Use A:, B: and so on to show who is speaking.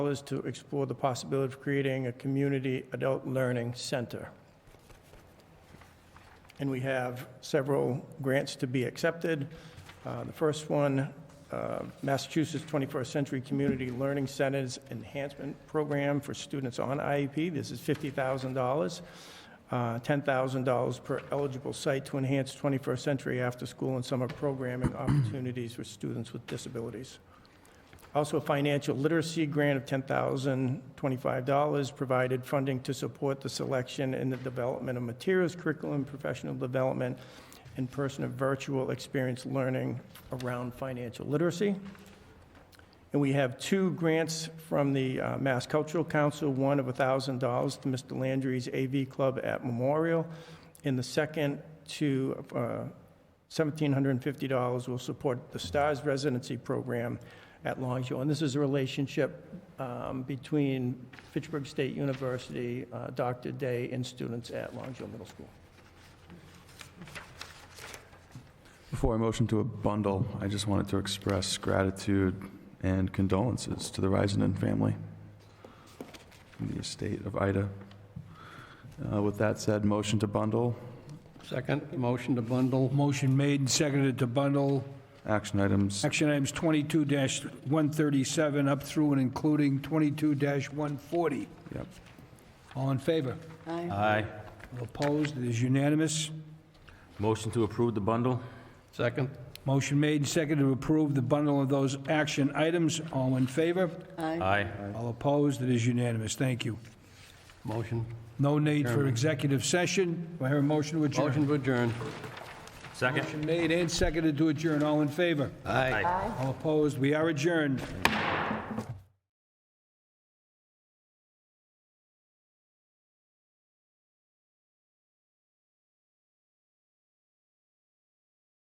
A: dollars to explore the possibility of creating a community adult learning center. And we have several grants to be accepted. Uh, The first one, uh, Massachusetts 21st Century Community Learning Centers Enhancement Program for students on IEP. This is $50,000. uh, $10,000 per eligible site to enhance 21st century after-school and summer programming opportunities for students with disabilities. Also, a financial literacy grant of $10,025 provided funding to support the selection and the development of materials, curriculum, professional development, and person of virtual experience learning around financial literacy. And we have two grants from the uh, Mass Cultural Council, one of $1,000 to Mr. Landry's AV Club at Memorial, and the second to uh, $1,750 will support the STARS residency program at Longshore. And this is a relationship um, between Fitchburg State University, uh, Dr. Day, and students at Longshore Middle School.
B: Before I motion to a bundle, I just wanted to express gratitude and condolences to the Risenden family and the estate of Ida. Uh, With that said, motion to bundle,
C: Second, motion to bundle.
D: Motion made and seconded to bundle
B: action items.
D: action items 22-137 up through and including 22-140.
B: Yep.
D: All in favor?
E: Aye.
D: Opposed? It is unanimous.
E: Motion to approve the bundle?
C: Second,
D: Motion made and seconded to approve the bundle of those action items. All in favor?
E: Aye.
D: All opposed? It is unanimous. Thank you.
C: motion.
D: No need for executive session. Do I hear a motion to adjourn?
C: Motion to adjourn.
E: Second?
D: Motion made and seconded to adjourn. All in favor?
C: Aye.
D: All opposed? We are adjourned.